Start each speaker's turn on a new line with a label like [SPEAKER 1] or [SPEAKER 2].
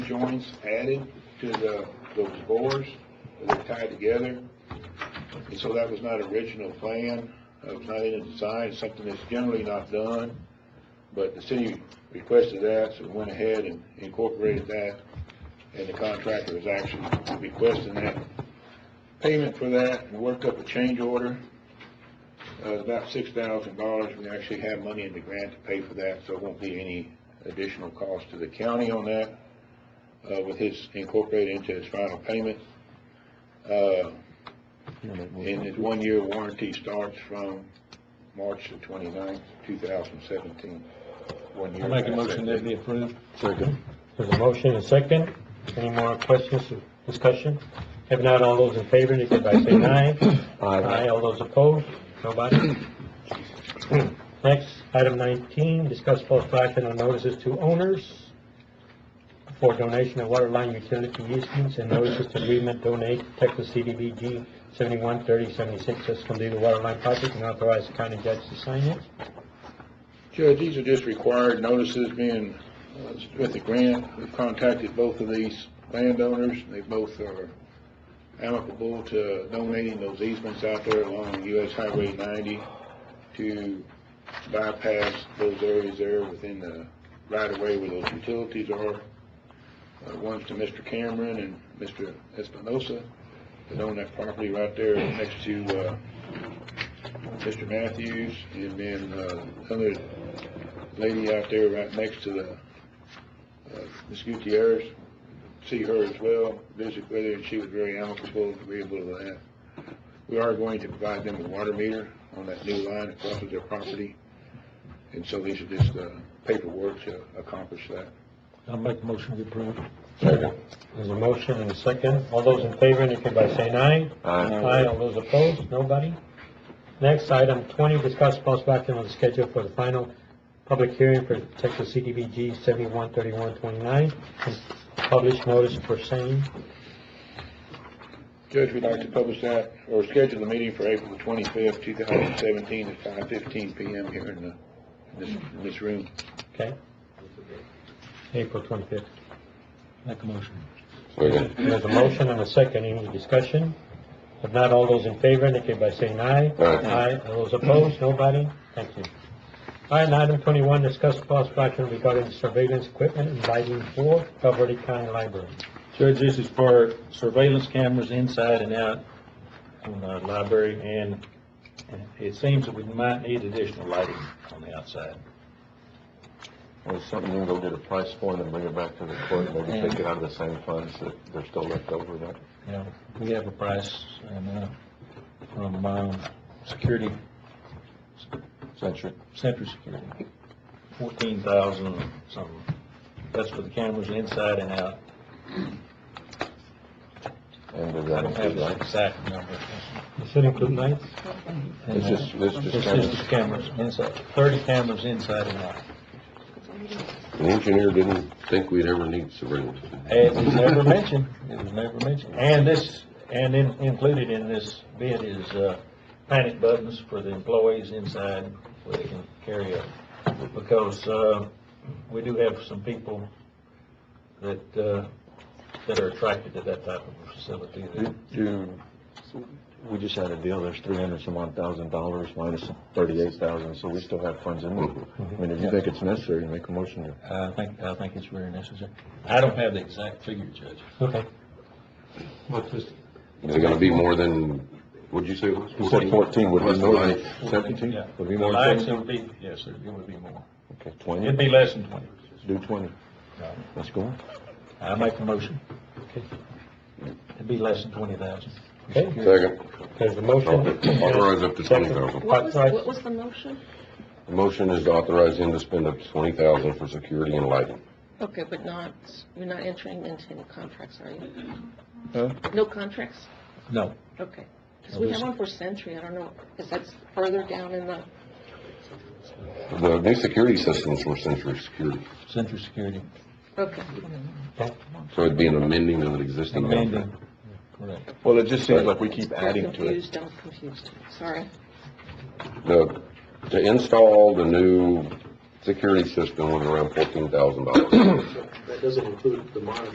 [SPEAKER 1] joints added to the, those bores, they're tied together. And so that was not original plan, it was not in the design, something that's generally not done. But the city requested that, so we went ahead and incorporated that, and the contractor is actually requesting that payment for that, and worked up a change order, uh, about six thousand dollars, we actually have money in the grant to pay for that, so it won't be any additional cost to the county on that, uh, with his incorporated into his final payment. Uh, and his one-year warranty starts from March the twenty-ninth, two thousand seventeen. One year.
[SPEAKER 2] I make a motion that be approved.
[SPEAKER 3] Second.
[SPEAKER 4] There's a motion and a second. Any more questions, or discussion? If not, all those in favor, indicate by saying aye. Aye, all those opposed? Nobody? Next, item nineteen, discuss possible action on notices to owners for donation of water line utility easements and notices to agreement donate Texas CDBG seventy-one thirty seventy-six, that's gonna be the water line project, and authorize the county judge to sign it.
[SPEAKER 1] Judge, these are just required notices being, uh, with the grant. We've contacted both of these landowners. They both are amicable to donating those easements out there along US Highway ninety to bypass those areas there within the right-of-way where those utilities are. Uh, one's to Mr. Cameron and Mr. Espinosa, that own that property right there next to, uh, Mr. Matthews, and then, uh, another lady out there right next to the, uh, Ms. Gutierrez, see her as well, visit with her, and she was very amicable, agreeable to that. We are going to provide them a water meter on that new line that crosses their property, and so these are just, uh, paperwork to accomplish that.
[SPEAKER 2] I make a motion to approve.
[SPEAKER 4] There's a motion and a second. All those in favor indicate by saying aye.
[SPEAKER 3] Aye.
[SPEAKER 4] Aye, all those opposed, nobody. Next, item twenty, discuss possible action on the schedule for the final public hearing for Texas CDBG seventy-one thirty-one twenty-nine, and publish notice for same.
[SPEAKER 1] Judge, we'd like to publish that, or schedule the meeting for April the twenty-fifth, two thousand seventeen, at five fifteen PM here in the, in this, in this room.
[SPEAKER 4] Okay. April twenty-fifth.
[SPEAKER 2] Make a motion.
[SPEAKER 3] Second.
[SPEAKER 4] There's a motion and a second, any discussion? If not, all those in favor indicate by saying aye.
[SPEAKER 3] Aye.
[SPEAKER 4] all those opposed, nobody? Thank you. All right, and item twenty-one, discuss possible action regarding surveillance equipment and lighting for Valverde County Library.
[SPEAKER 2] Judge, this is for surveillance cameras inside and out on the library, and it seems that we might need additional lighting on the outside.
[SPEAKER 3] Well, something you can go get a price for and then bring it back to the court, maybe take it out of the same funds that they're still left over there.
[SPEAKER 2] You know, we have a price, and, uh, from, um, security,
[SPEAKER 3] Century.
[SPEAKER 2] Century Security, fourteen thousand something. That's for the cameras inside and out.
[SPEAKER 3] And does
[SPEAKER 2] I
[SPEAKER 3] that
[SPEAKER 2] don't have
[SPEAKER 3] include
[SPEAKER 2] the
[SPEAKER 3] lights?
[SPEAKER 2] exact number. uh,
[SPEAKER 4] Does it include lights?
[SPEAKER 3] It's just, it's just.
[SPEAKER 2] It's
[SPEAKER 3] cameras.
[SPEAKER 2] just the cameras inside, thirty cameras inside and out.
[SPEAKER 5] The engineer didn't think we'd ever need surveillance.
[SPEAKER 2] It was never mentioned, it was never mentioned. And this, and in, included in this bid is, uh, panic buttons for the employees inside where they can carry up. Because, uh, we do have some people that, uh, that are attracted to that type of facility.
[SPEAKER 3] Do- Do, we just had a deal, there's three hundred some odd thousand dollars minus thirty-eight thousand, so we still have funds in
[SPEAKER 5] Mm-hmm.
[SPEAKER 3] there. I mean, if you think it's necessary, make a motion to.
[SPEAKER 2] I think, I think it's very necessary. I don't have the exact figure, Judge.
[SPEAKER 4] Okay.
[SPEAKER 5] Is it gonna be more than, what'd you say it was?
[SPEAKER 3] You said fourteen, would be
[SPEAKER 5] Plus the
[SPEAKER 3] more than
[SPEAKER 5] light.
[SPEAKER 3] seventeen?
[SPEAKER 2] Yeah.
[SPEAKER 3] Would be more than
[SPEAKER 2] Lights,
[SPEAKER 3] seventeen?
[SPEAKER 2] it would be, yes, it would be more.
[SPEAKER 3] Okay,
[SPEAKER 2] It'd
[SPEAKER 3] twenty,
[SPEAKER 2] be less than twenty.
[SPEAKER 3] do twenty.
[SPEAKER 2] No.
[SPEAKER 3] Let's go.
[SPEAKER 2] I make the motion. It'd be less than twenty thousand.
[SPEAKER 4] Okay,
[SPEAKER 5] Second,
[SPEAKER 4] there's a motion.
[SPEAKER 5] authorize up to twenty thousand.
[SPEAKER 6] What was, what was the motion?
[SPEAKER 5] The motion is to authorize him to spend up to twenty thousand for security and lighting.
[SPEAKER 6] Okay, but not, you're not entering into any contracts, are you?
[SPEAKER 3] Huh?
[SPEAKER 6] No contracts?
[SPEAKER 2] No.
[SPEAKER 6] Okay. Because we have one for Century, I don't know, is that further down in the,
[SPEAKER 5] The new security systems were Century Security,
[SPEAKER 2] Central Security.
[SPEAKER 6] okay.
[SPEAKER 5] so it'd be an amending of an existing contract.
[SPEAKER 2] Correct.
[SPEAKER 3] Well, it just seems like we keep
[SPEAKER 6] I'm
[SPEAKER 3] adding to it.
[SPEAKER 6] confused, I'm confused, sorry.
[SPEAKER 5] The, to install the new security system was around fourteen thousand dollars.
[SPEAKER 7] That doesn't include the monitor.